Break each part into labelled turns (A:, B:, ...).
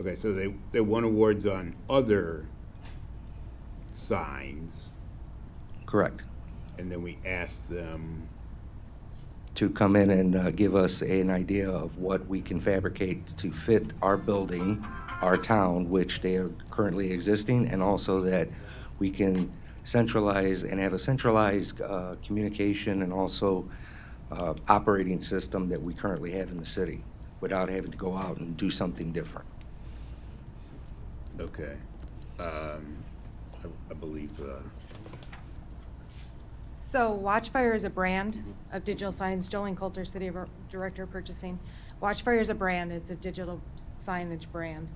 A: Okay, so they, they won awards on other signs,
B: Correct.
A: and then we asked them,
B: To come in and uh, give us an idea of what we can fabricate to fit our building, our town, which they are currently existing, and also that we can centralize and have a centralized uh, communication and also uh, operating system that we currently have in the city without having to go out and do something different.
A: okay, um, I, I believe, uh,
C: So Watchfire is a brand of digital signs. Jolene Coulter, City of- Director of Purchasing. Watchfire is a brand. It's a digital signage brand.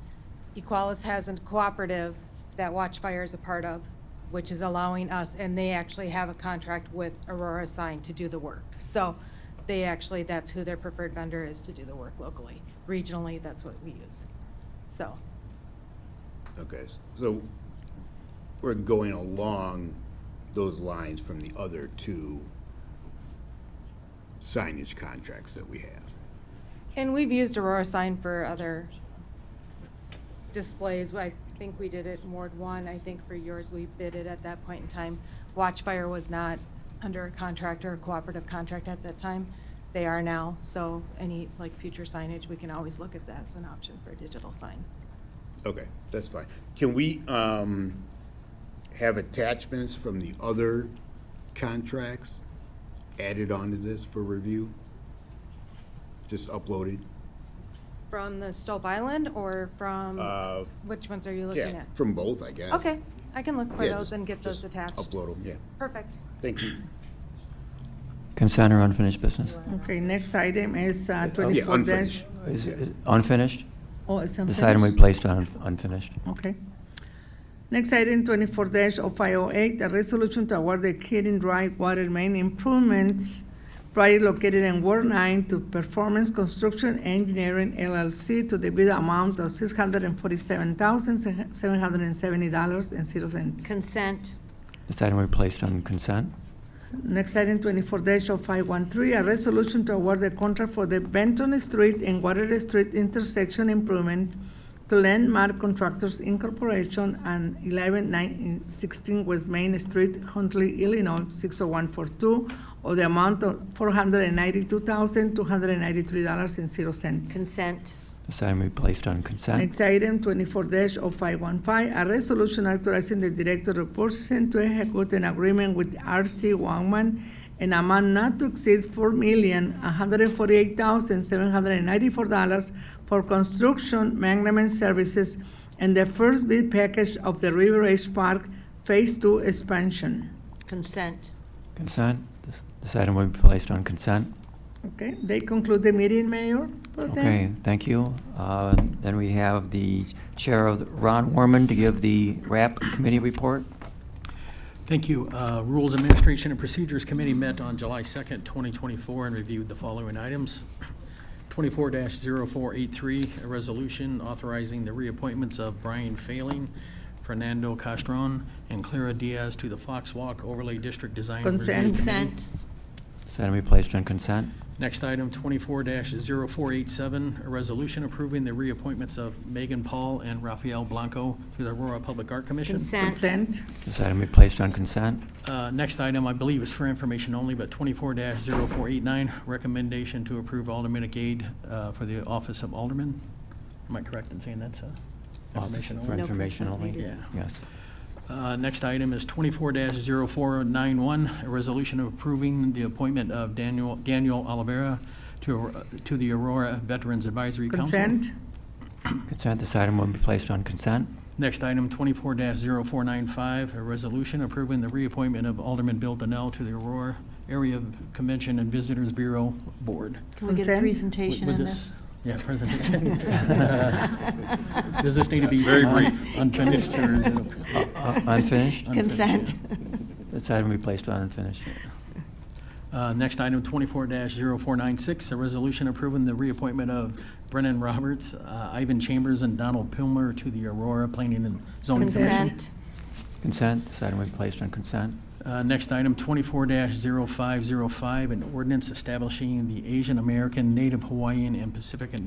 C: Equalis has a cooperative that Watchfire is a part of, which is allowing us, and they actually have a contract with Aurora Sign to do the work. So they actually, that's who their preferred vendor is to do the work locally. Regionally, that's what we use. So,
A: okay, s- so we're going along those lines from the other two signage contracts that we have.
C: and we've used Aurora Sign for other displays, I think we did it in Ward One, I think for yours, we bid it at that point in time. Watchfire was not under a contract or a cooperative contract at that time, they are now, so any, like, future signage, we can always look at that as an option for a digital sign.
A: Okay, that's fine. Can we, um, have attachments from the other contracts added onto this for review? Just uploaded?
C: From the Stope Island or from,
A: Uh,
C: which ones are you looking
A: yeah,
C: at?
A: from both, I guess.
C: Okay, I can look for
A: Yeah,
C: those
A: just-
C: and get those
A: just
C: attached.
A: Upload them, yeah.
C: Perfect.
A: Thank you.
D: Consent or unfinished business?
E: Okay, next item is uh,
A: Yeah,
E: twenty-four dash.
A: unfinished.
D: Is it unfinished?
E: Oh, it's
D: This item we
E: unfinished?
D: placed on unfinished.
E: Okay. Next item, twenty-four dash oh five oh eight, a resolution to award the Kidding Drive Water Main Improvements project located in Ward Nine to Performance Construction Engineering LLC to the bid amount of six hundred and forty-seven thousand, seven hundred and seventy dollars and zero cents.
F: Consent,
D: This item we placed on consent.
E: Next item, twenty-four 513 a resolution to award the contract for the Benton Street and Water Street intersection improvement to Landmark Contractors Incorporation and eleven nine sixteen West Main Street, Huntley, Illinois, six oh one four two, of the amount of four hundred and ninety-two thousand, two hundred and ninety-three dollars and zero cents.
F: consent,
D: This item we placed on consent.
E: Next item, twenty-four oh 515 a resolution authorizing the Director of Purchasing to execute an agreement with RC Wangman an amount not to exceed four million, one hundred forty-eight thousand, seven hundred and ninety-four dollars for construction management services and the first bid package of the River Edge Park Phase Two expansion.
F: consent,
D: Consent. This- This item we placed on consent.
E: Okay, they conclude the meeting, Mayor? Pro Tem?
D: Okay, thank you. Uh, Then we have the Chair of, the- Ron Warman, to give the RAP Committee report.
G: Thank you. Uh, Rules Administration and Procedures Committee met on July 2nd, 2024, and reviewed the following items. 24-0483, a resolution authorizing the reappointments of Brian Failing, Fernando Castron, and Clara Diaz to the Fox Walk Overlay District Design Review
E: Consent.
G: Committee.
F: consent,
D: This item we placed on consent.
G: Next item, 24-0487, a resolution approving the reappointments of Megan Paul and Rafael Blanco to the Aurora Public Art Commission.
F: consent,
E: Consent,
D: This item we placed on consent.
G: Uh, Next item, I believe, is for information only, but 24-0489, recommendation to approve aldermanic aid uh, for the office of alderman. Am I correct in saying that's uh, information
D: For
G: only?
F: No.
D: information
F: consent
D: only.
G: needed. Yeah.
D: Yes.
G: Uh, Next item is 24-0491, a resolution approving the appointment of Daniel Daniel Olivera to uh, to the Aurora Veterans Advisory Council.
E: consent,
D: Consent. This item will be placed on consent.
G: Next item, 24-0495, a resolution approving the reappointment of Alderman Bill Donnell to the Aurora Area Convention and Visitors Bureau Board.
F: can we get a
E: Consent.
F: presentation
G: Would
F: on
G: this-
F: this?
G: Yeah, presentation. Does this need to be? Very brief. Unfinished or is it?
D: Uh, Unfinished.
G: Unfinished,
F: Consent,
D: This item we placed on unfinished.
G: Uh, Next item, 24-0496, a resolution approving the reappointment of Brennan Roberts, uh, Ivan Chambers, and Donald Pilmer to the Aurora Planning and Zoning Commission.
F: consent,
D: Consent. This item we placed on consent.
G: Uh, Next item, 24-0505, an ordinance establishing the Asian American, Native Hawaiian, and Pacific and